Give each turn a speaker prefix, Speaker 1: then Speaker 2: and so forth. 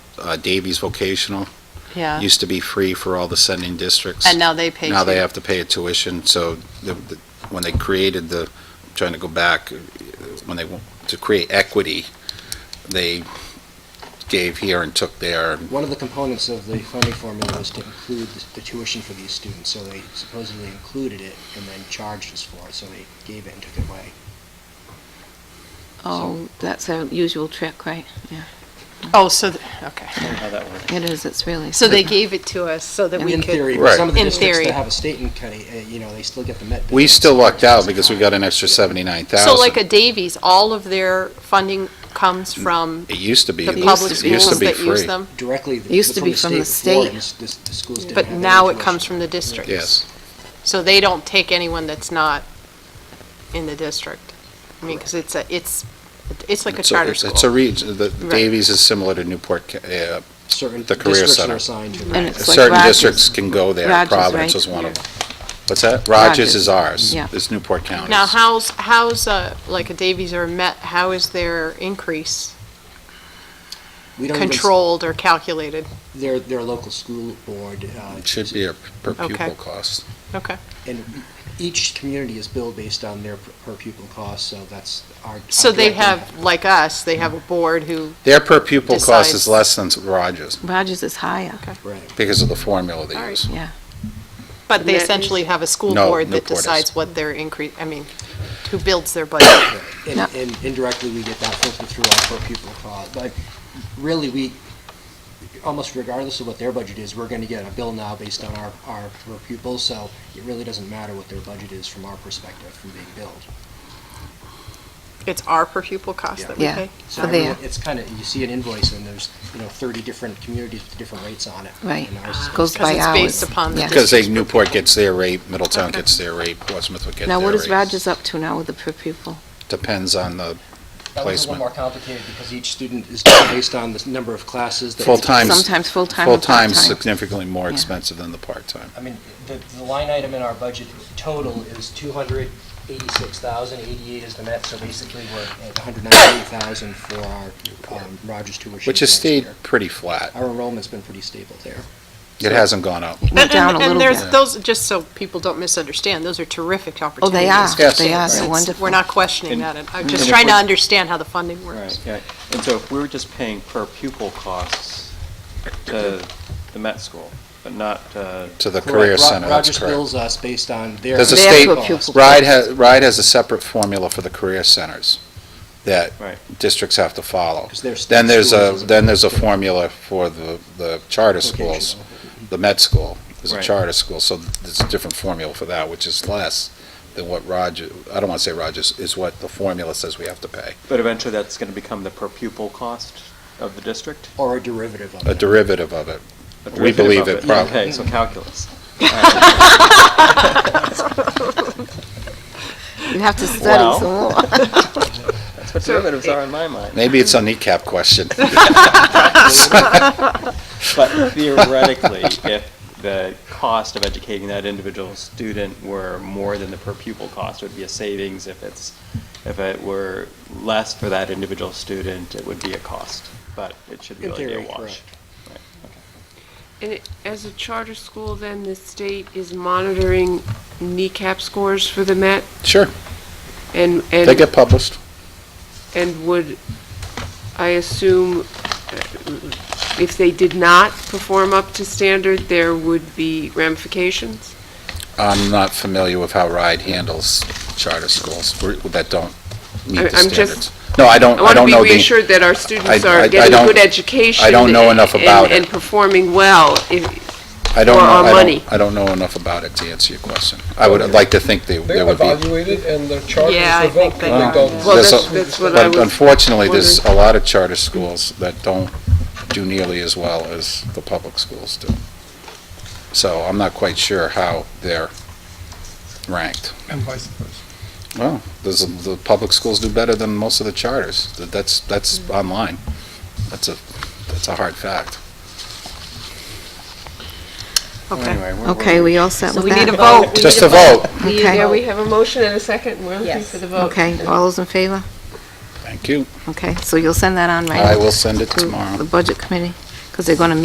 Speaker 1: uh, Davies Vocational.
Speaker 2: yeah.
Speaker 1: Used to be free for all the sending districts.
Speaker 2: And now they pay
Speaker 1: Now they
Speaker 2: too.
Speaker 1: have to pay a tuition, so the- the- when they created the, trying to go back, uh, when they, want to create equity, they gave here and took there.
Speaker 3: One of the components of the funding formula was to include the- the tuition for these students, so they supposedly included it and then charged us for it, so they gave it and took it away.
Speaker 4: Oh, that's a usual trick, right?
Speaker 2: Oh, so, th- okay.
Speaker 5: how that works.
Speaker 4: It is, it's really.
Speaker 2: So they gave it to us so that we
Speaker 3: In
Speaker 2: could.
Speaker 3: theory,
Speaker 1: Right.
Speaker 3: but some of the
Speaker 2: In
Speaker 3: districts that
Speaker 2: theory.
Speaker 3: have a state and county, uh, you know, they still get the met.
Speaker 1: We
Speaker 3: benefits.
Speaker 1: still lucked out because we got an extra
Speaker 2: So like
Speaker 1: 79,000.
Speaker 2: a Davies, all of their funding comes from
Speaker 1: It used to be.
Speaker 2: the
Speaker 1: it
Speaker 2: public
Speaker 1: used to- it used to
Speaker 2: schools
Speaker 1: be
Speaker 2: that use
Speaker 1: free.
Speaker 2: them,
Speaker 3: Directly. the-
Speaker 4: Used to be from the
Speaker 3: before,
Speaker 4: state.
Speaker 3: and s- this- The schools didn't have
Speaker 2: but
Speaker 3: any
Speaker 2: now it
Speaker 3: tuition.
Speaker 2: comes from the districts.
Speaker 1: Yes.
Speaker 2: So they don't take anyone that's not in the district. I mean, because it's a, it's, it's like a
Speaker 1: It's a-
Speaker 2: charter
Speaker 1: it's-
Speaker 2: school.
Speaker 1: It's a region, the the
Speaker 2: Right.
Speaker 1: Davies is similar to Newport, Ca- uh,
Speaker 3: Certain
Speaker 1: the career
Speaker 3: districts
Speaker 1: center.
Speaker 3: are assigned to.
Speaker 4: And
Speaker 3: it.
Speaker 4: it's like
Speaker 1: certain
Speaker 4: Rogers.
Speaker 1: districts can go there,
Speaker 4: Rogers,
Speaker 1: Providence
Speaker 4: right?
Speaker 1: is one of them. What's that? Rogers
Speaker 4: Rogers.
Speaker 1: is ours,
Speaker 4: Yeah.
Speaker 1: it's Newport County.
Speaker 2: Now, how's, how's, uh, like a Davies or Met, how is their increase
Speaker 3: We don't even s-
Speaker 2: controlled or calculated?
Speaker 3: Their, their local school board. uh,
Speaker 1: It should be a per
Speaker 2: Okay.
Speaker 1: pupil cost.
Speaker 2: Okay.
Speaker 3: And each community is billed based on their per pupil cost, so that's our. our
Speaker 2: So they
Speaker 3: direct
Speaker 2: have,
Speaker 3: impact.
Speaker 2: like us, they have a board who,
Speaker 1: Their per pupil cost
Speaker 2: Decides.
Speaker 1: is less than Rogers
Speaker 4: Rogers is higher.
Speaker 3: Right.
Speaker 1: because of the formula
Speaker 2: All
Speaker 1: they
Speaker 2: right.
Speaker 1: use.
Speaker 2: but they
Speaker 4: Met is-
Speaker 2: essentially have a school
Speaker 1: No,
Speaker 2: board that
Speaker 1: Newport is.
Speaker 2: decides what their increase, I mean, who builds their budget.
Speaker 3: And,
Speaker 4: No.
Speaker 3: and indirectly, we get that filtered through our per pupil cost. But really, we, almost regardless of what their budget is, we're gonna get a bill now based on our, our per pupil, so it really doesn't matter what their budget is from our perspective, from being billed.
Speaker 2: It's our per pupil cost that we
Speaker 4: Yeah.
Speaker 2: pay?
Speaker 3: So
Speaker 4: For their-
Speaker 3: everyone- it's kinda, you see an invoice and there's, you know, thirty different communities with different rates on it.
Speaker 4: Right.
Speaker 3: And ours is
Speaker 4: Goes
Speaker 3: based on-
Speaker 4: by
Speaker 2: it's
Speaker 4: hours.
Speaker 2: based upon the
Speaker 4: Yeah.
Speaker 1: Because they, Newport gets their rate, Middletown
Speaker 2: Okay.
Speaker 1: gets their rate, Portsmouth would get their
Speaker 4: Now,
Speaker 1: rate.
Speaker 4: what is Rogers up to now with the per pupil?
Speaker 1: Depends on the
Speaker 3: That one's a little
Speaker 1: placement.
Speaker 3: more complicated because each student is different based on the number of classes. that-
Speaker 1: full-time.
Speaker 4: Sometimes full-time or
Speaker 1: Full-time's
Speaker 4: part-time.
Speaker 1: significantly more
Speaker 4: Yeah.
Speaker 1: expensive than the part-time.
Speaker 3: I mean, the, the line item in our budget total is two hundred eighty-six thousand, eighty-eight is the net, so basically we're at hundred ninety-eight thousand for our um, Rogers tuition.
Speaker 1: Which has
Speaker 3: next
Speaker 1: stayed
Speaker 3: year.
Speaker 1: pretty flat.
Speaker 3: Our enrollment's been pretty stable there.
Speaker 1: It hasn't gone up.
Speaker 4: It went down a little
Speaker 2: And there's,
Speaker 4: bit.
Speaker 2: those, just so people don't misunderstand, those are terrific
Speaker 4: Oh,
Speaker 2: opportunities.
Speaker 4: they are,
Speaker 1: Yes.
Speaker 4: they are, they're
Speaker 2: It's-
Speaker 4: wonderful.
Speaker 2: We're not questioning that, and I'm just
Speaker 5: And if
Speaker 2: trying to
Speaker 5: we're-
Speaker 2: understand how the funding works.
Speaker 5: Right, yeah. And so if we were just paying per pupil costs to the Met School, but not, uh,
Speaker 1: To the career
Speaker 3: Ro-
Speaker 1: center, that's
Speaker 3: Rogers
Speaker 1: correct.
Speaker 3: bills us based on their.
Speaker 1: There's a
Speaker 4: They have
Speaker 1: state,
Speaker 4: to a pupil.
Speaker 1: RIDE has, RIDE has a separate formula for the career centers that
Speaker 5: Right.
Speaker 1: districts have to follow.
Speaker 3: 'Cause their
Speaker 1: Then
Speaker 3: state
Speaker 1: there's a,
Speaker 3: schools is a-
Speaker 1: then there's a formula for the, the charter schools.
Speaker 3: Vocational.
Speaker 1: The med school is a
Speaker 5: Right.
Speaker 1: charter school, so there's a different formula for that, which is less than what Roger, I don't want to say Rogers, is what the formula says we have to pay,
Speaker 5: but eventually that's going to become the per pupil cost of the district?
Speaker 3: Or a derivative of
Speaker 1: a
Speaker 3: it.
Speaker 1: derivative of it.
Speaker 5: A
Speaker 1: We
Speaker 5: derivative
Speaker 1: believe
Speaker 5: of
Speaker 1: it prob-
Speaker 5: Okay, so calculus.
Speaker 4: You have to study
Speaker 5: Wow.
Speaker 4: some more.
Speaker 5: That's what derivatives are in my mind.
Speaker 1: Maybe it's a kneecap question.
Speaker 5: But theoretically, if the cost of educating that individual student were more than the per pupil cost, it would be a savings. If it's, if it were less for that individual student, it would be a cost. But it should
Speaker 3: In
Speaker 5: really be a
Speaker 3: theory,
Speaker 5: wash.
Speaker 3: correct.
Speaker 5: Right, okay.
Speaker 6: And it- as a charter school, then the state is monitoring kneecap scores for the Met
Speaker 1: Sure,
Speaker 6: and,
Speaker 1: they
Speaker 6: and,
Speaker 1: get published.
Speaker 6: and would, I assume, uh, if they did not perform up to standard, there would be ramifications?
Speaker 1: I'm not familiar with how RIDE handles charter schools we're- that don't meet
Speaker 6: I-
Speaker 1: the
Speaker 6: I'm just-
Speaker 1: standards. No, I don't,
Speaker 6: I
Speaker 1: I
Speaker 6: want to
Speaker 1: don't know
Speaker 6: be
Speaker 1: the.
Speaker 6: reassured that our students are getting
Speaker 1: don't-
Speaker 6: good education.
Speaker 1: I don't know enough
Speaker 6: and-
Speaker 1: about it.
Speaker 6: And performing well. If-
Speaker 1: I don't
Speaker 6: or
Speaker 1: know,
Speaker 6: our
Speaker 1: I
Speaker 6: money.
Speaker 1: don't, I don't know enough about it to answer your question. I would like to think they,
Speaker 7: They
Speaker 1: there would be.
Speaker 7: evaluated and their charges
Speaker 2: Yeah, I think
Speaker 7: revoked.
Speaker 2: they
Speaker 7: when
Speaker 2: are.
Speaker 7: don't-
Speaker 6: Well,
Speaker 1: There's
Speaker 6: that's,
Speaker 1: a-
Speaker 6: that's what I
Speaker 1: But
Speaker 6: was.
Speaker 1: unfortunately, there's a
Speaker 6: wondering.
Speaker 1: lot of charter schools that don't do nearly as well as the public schools do. So I'm not quite sure how they're ranked.
Speaker 7: And vice versa.
Speaker 1: Well, there's, a- the public schools do better than most of the charters. That- That's, that's online. That's a, that's a hard fact.
Speaker 2: Okay.
Speaker 5: Anyway, we're-
Speaker 4: Okay, we all set
Speaker 2: So
Speaker 4: with
Speaker 2: we need a
Speaker 4: that?
Speaker 2: vote.
Speaker 1: Just a vote.
Speaker 4: Okay.
Speaker 6: Yeah, we have a motion and a second. and We're looking for the vote.
Speaker 4: Okay, all those in favor?
Speaker 1: Thank you.
Speaker 4: Okay, so you'll send that on, right? Mm.
Speaker 1: I will send it
Speaker 4: to
Speaker 1: tomorrow.
Speaker 4: The budget committee? because they're going to